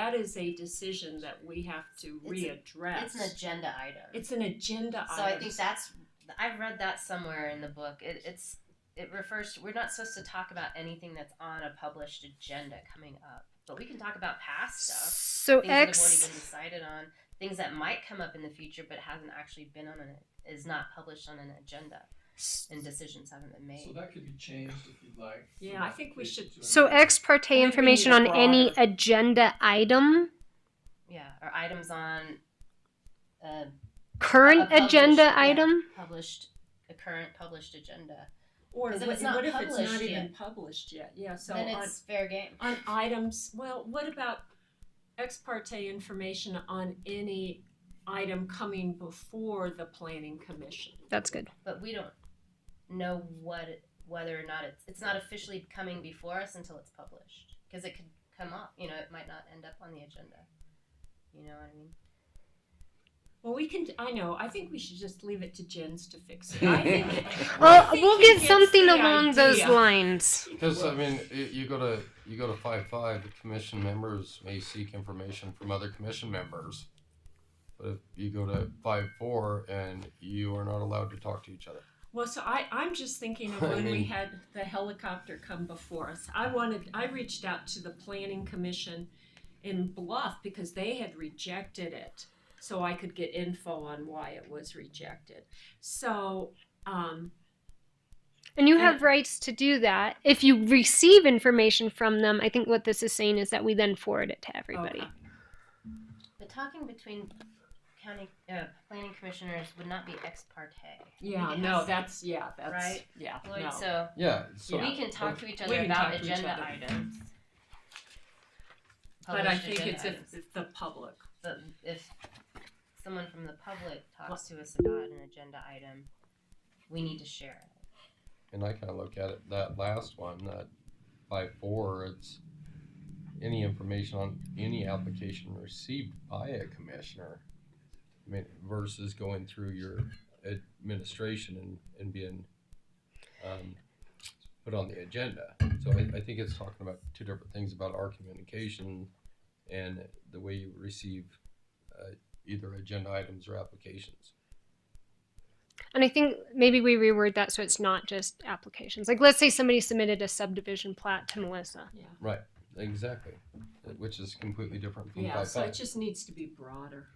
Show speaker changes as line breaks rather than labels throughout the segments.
that is a decision that we have to
It's a-
readdress.
It's an agenda item.
It's an agenda
so
item.
I think that's I've read that somewhere in the book. It, it's it refers to we're not supposed to talk about anything that's on a published agenda coming up, but we can talk about past stuff,
So
things that have
X.
already been decided on, things that might come up in the future but hasn't actually been on an is not published on an agenda, and decisions haven't been
So
made.
that could be changed if you'd like. from
Yeah, I think we
application
should-
to
So
amendment.
ex parte
need
information
a
on any
broader-
agenda item,
Yeah, or items on uh, a
current
published-
agenda
yeah,
item.
published a current published agenda.
or
'Cause if
what,
it's not
what if it's not
published
even
yet-
published yet? Yeah. So
then
on,
it's fair game.
on items, well, what about ex parte information on any item coming before the planning commission?
That's good.
but we don't know what whether or not it's it's not officially coming before us until it's published because it could come up you know it might not end up on the agenda you know what i mean
Well, we can. I know. I think we should just leave it to Jens to fix it. I think, I
Well,
think
we'll
he
get
gets
something
the
along those
idea.
lines.
Because I mean, it, you go to you go to five five. The commission members may seek information from other commission members, but if you go to five four and you are not allowed to talk to each other.
Well, so I, I'm just thinking of
I
when we
mean-
had the helicopter come before us. I wanted, I reached out to the planning commission in Bluff because they had rejected it. So I could get info on why it was rejected. So, um,
And you
And-
have rights to do that. If you receive information from them, I think what this is saying is that we then forward it to everybody.
okay.
but talking between county uh, planning commissioners would not be ex parte
yeah,
It
no,
has-
that's, yeah, that's,
Right?
yeah,
Lloyd,
no.
so
Yeah. So
we can talk to each
We
other
can
about
talk to each
agenda
other.
items
But I
Published
think
agenda
it's if,
items.
if the public,
But if someone from the public talks to us about an agenda item we need to share it
and I kind of look at it that last one that five four. It's any information on any application received by a commissioner, I mean, versus going through your administration and and being um, put on the agenda. So I, I think it's talking about two different things about our communication and the way you receive uh, either agenda items or applications.
And I think maybe we reword that so it's not just applications. Like, let's say somebody submitted a subdivision plat to Melissa.
yeah.
Exactly, which is completely different from
Yeah,
five
so
five.
it just needs to be broader.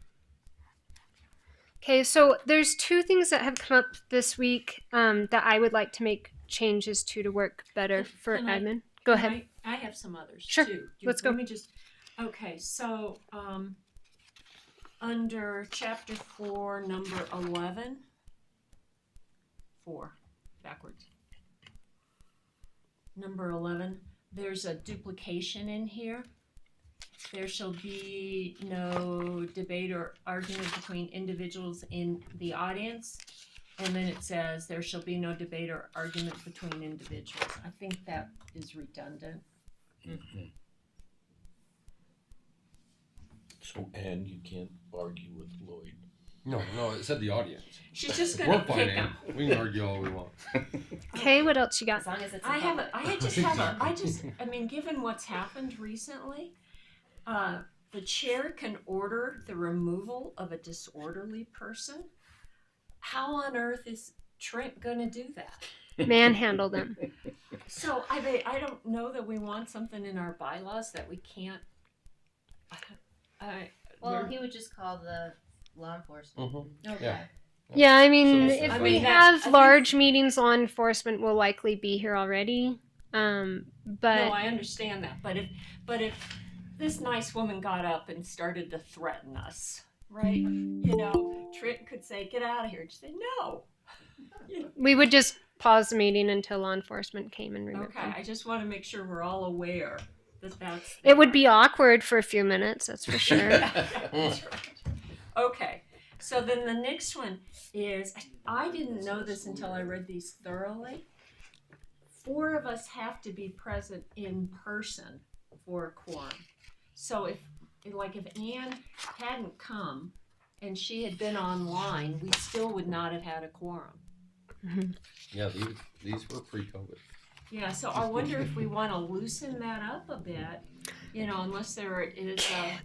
Okay, so there's two things that have come up this week um, that I would like to make changes to to work better
Can-
for
can I-
admin. Go ahead.
I, um, I have some others
Sure.
too. Do you-
Let's go.
Let me just. Okay, so um, under chapter four, number eleven. Four, backwards. Number eleven. There's a duplication in here. There shall be no debate or argument between individuals in the audience. And then it says, there shall be no debate or argument between individuals. I think that is redundant.
So, and you can't argue with Lloyd.
No, no, it said the audience.
She's just
We're
gonna
fine.
pick up.
Ann. We can argue all we want.
Okay, what else you got?
as long as it's in
I have.
public.
A, I had just have. A, I just. I mean, given what's happened recently, uh, the chair can order the removal of a disorderly person. How on earth is Trent gonna do that?
Manhandle them.
So I. mean, I don't know that we want something in our bylaws that we can't. I.
Well,
we're-
he would just call the law enforcement.
Mhm.
Okay.
Yeah.
Yeah, I mean,
So-
if
I
we
mean, that- I
have
think-
large meetings, law enforcement will likely be here already. Um, but
No, I understand that, but if, but if this nice woman got up and started to threaten us, right? You know, Trent could say, "Get out of here," and she'd say, "No."
we would just pause the meeting until law enforcement came and removed
Okay,
them.
I just want to make sure we're all aware that that's.
It would be awkward for a few minutes, that's for sure.
That's right. Okay, so then the next one is I didn't know this until I read these thoroughly. Four of us have to be present in person for a quorum. So if, like, if Anne hadn't come and she had been online, we still would not have had a quorum.
Yeah, these, these were pre-COVID.
Yeah, so I wonder if we want to loosen that up a bit you know, unless there is a